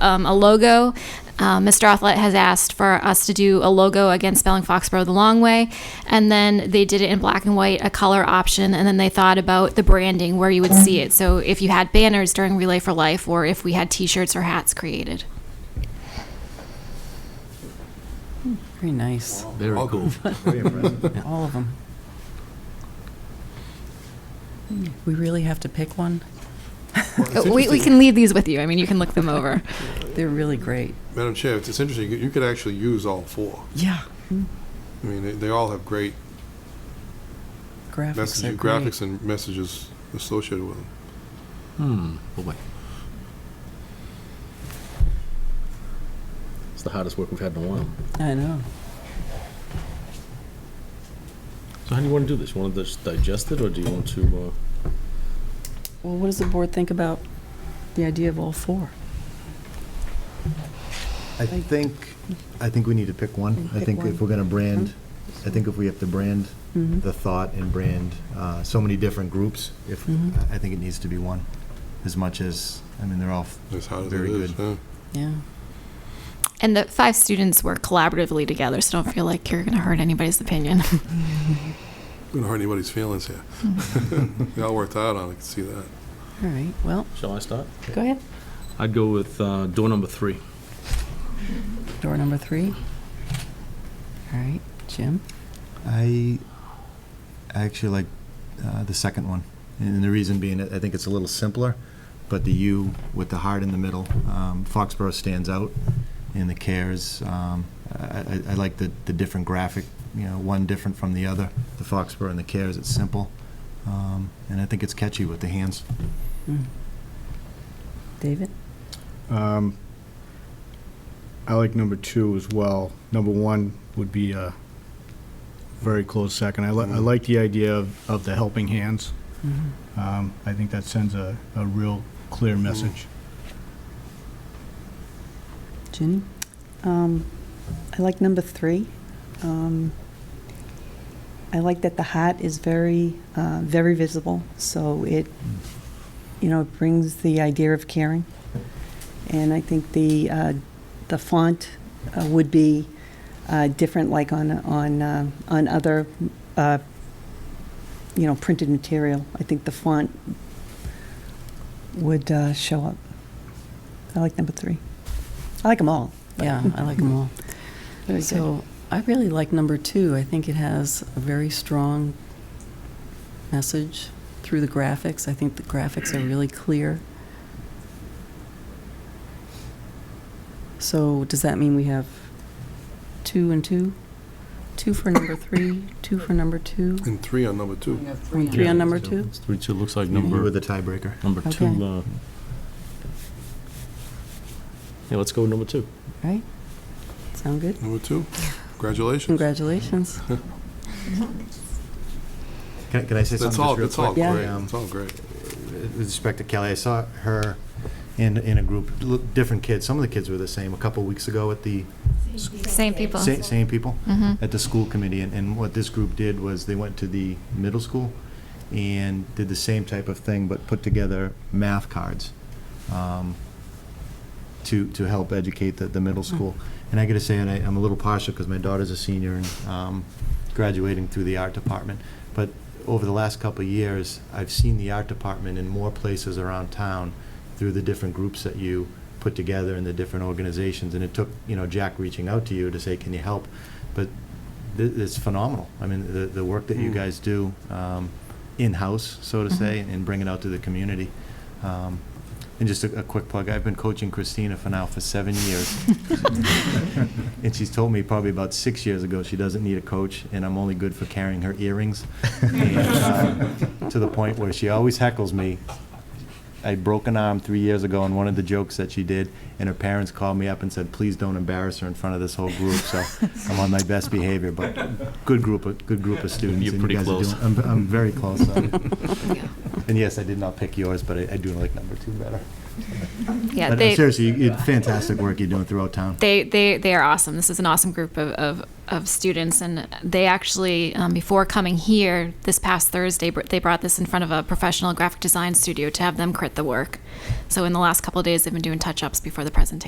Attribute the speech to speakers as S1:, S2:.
S1: um, a logo. Uh, Mr. Othlet has asked for us to do a logo again spelling Foxborough the long way, and then they did it in black and white, a color option, and then they thought about the branding where you would see it. So if you had banners during Relay for Life, or if we had T-shirts or hats created.
S2: Very nice.
S3: Very cool.
S2: All of them. We really have to pick one?
S1: Uh, We, we can leave these with you. I mean, you can look them over.
S2: They're really great.
S4: Madam Chair, it's it's interesting, you could- you could actually use all four.
S2: Yeah.
S4: I mean, they- they all have great
S2: Graphics are
S4: messages,
S2: great.
S4: graphics and messages associated with them.
S3: Hmm,
S5: Oh,
S3: boy. It's the hardest work we've had in a while.
S2: I know.
S5: So how do you want to do this? You want to just digest it, or do you want to, uh,
S2: Well, what does the board think about the idea of all four?
S6: I think, I think we need to pick one. I
S2: Pick
S6: think if
S2: one. Mm-hmm.
S6: we're going to brand, I think if we have to brand
S2: Mhm.
S6: the thought and brand uh, so many different groups, if,
S2: Mhm.
S6: I think it needs to be one, as much as, I mean, they're all
S4: As hard as it
S6: very
S4: is,
S6: good.
S4: yeah.
S2: Yeah.
S1: And the five students work collaboratively together, so don't feel like you're going to hurt anybody's opinion.
S4: Don't hurt anybody's feelings here. They all worked out on it, I can see that.
S2: All right, well,
S5: uh, shall I start?
S2: go ahead.
S5: I'd go with uh, door number three.
S2: Door number three. All right, Jim?
S6: I, I actually like uh, the second one, and the reason being, I think it's a little simpler, but the U with the heart in the middle, um, Foxborough stands out, and the cares, um, I, I- I like the, the different graphic, you know, one different from the other, the Foxborough and the cares, it's simple, um, and I think it's catchy with the hands.
S2: Hmm. David?
S7: Um, I like number two as well. Number one would be a very close second. I, li- I like the idea of, of the helping hands.
S2: Mm-hmm.
S7: Um, I think that sends a, a real clear message.
S2: Ginny?
S8: Um, I like number three. Um, I like that the hat is very, uh, very visible, so it, you know, it brings the idea of caring. And I think the, uh, the font uh, would be uh, different, like on, on, uh, on other, uh, you know, printed material. I think the font would uh, show up. I like number three. I like them all. but-
S2: Yeah, I like them all.
S8: Very good.
S2: So I really like number two. I think it has a very strong message through the graphics. I think the graphics are really clear. So does that mean we have two and two? Two for number three, two for number two,
S4: And three on number two.
S2: and three on number two?
S5: It's Three, two, looks like
S6: You were
S5: number,
S6: the tiebreaker.
S5: number
S2: Okay.
S5: two. uh, Yeah, let's go with number two.
S2: Right? Sound good?
S4: Number two? Congratulations.
S2: Congratulations.
S6: Can can I say something
S4: That's
S6: just
S4: all,
S6: real
S4: that's all
S6: quick?
S4: great,
S6: Um,
S4: that's all great.
S6: with respect to Kelly, I saw her in, in a group, l- different kids, some of the kids were the same, a couple weeks ago at the,
S1: Same people.
S6: sa- same people,
S1: hmm
S6: at the school committee, and, and what this group did was they went to the middle school and did the same type of thing, but put together math cards um, to, to help educate the, the middle school. And I gotta say, and I, I'm a little partial, because my daughter's a senior and um, graduating through the art department, but over the last couple of years, I've seen the art department in more places around town through the different groups that you put together and the different organizations, and it took, you know, Jack reaching out to you to say, can you help? But th- it's phenomenal. I mean, the, the work that you
S4: Mm.
S6: guys do um, in-house, so to say, and bring it out to the community. Um, And just a, a quick plug, I've been coaching Christina for now for seven years. And she's told me probably about six years ago, she doesn't need a coach, and I'm only good for carrying her earrings. And, uh, To the point where she always heckles me. I broke an arm three years ago in one of the jokes that she did, and her parents called me up and said, please don't embarrass her in front of this whole group, so I'm on my best behavior, but good group, of good group of students.
S5: You're
S6: and you
S5: pretty
S6: guys are
S5: close.
S6: doing- I'm, I'm very close. um, And yes, I did not pick yours, but I, I do like number two better.
S1: Yeah,
S6: But
S1: they,
S6: uh, seriously, you- you- fantastic work you're doing throughout town.
S1: they they they are awesome. This is an awesome group of of, of students, and they actually um, before coming here this past Thursday, br- they brought this in front of a professional graphic design studio to have them crit the work. So in the last couple of days, they've been doing touch ups before the presentation.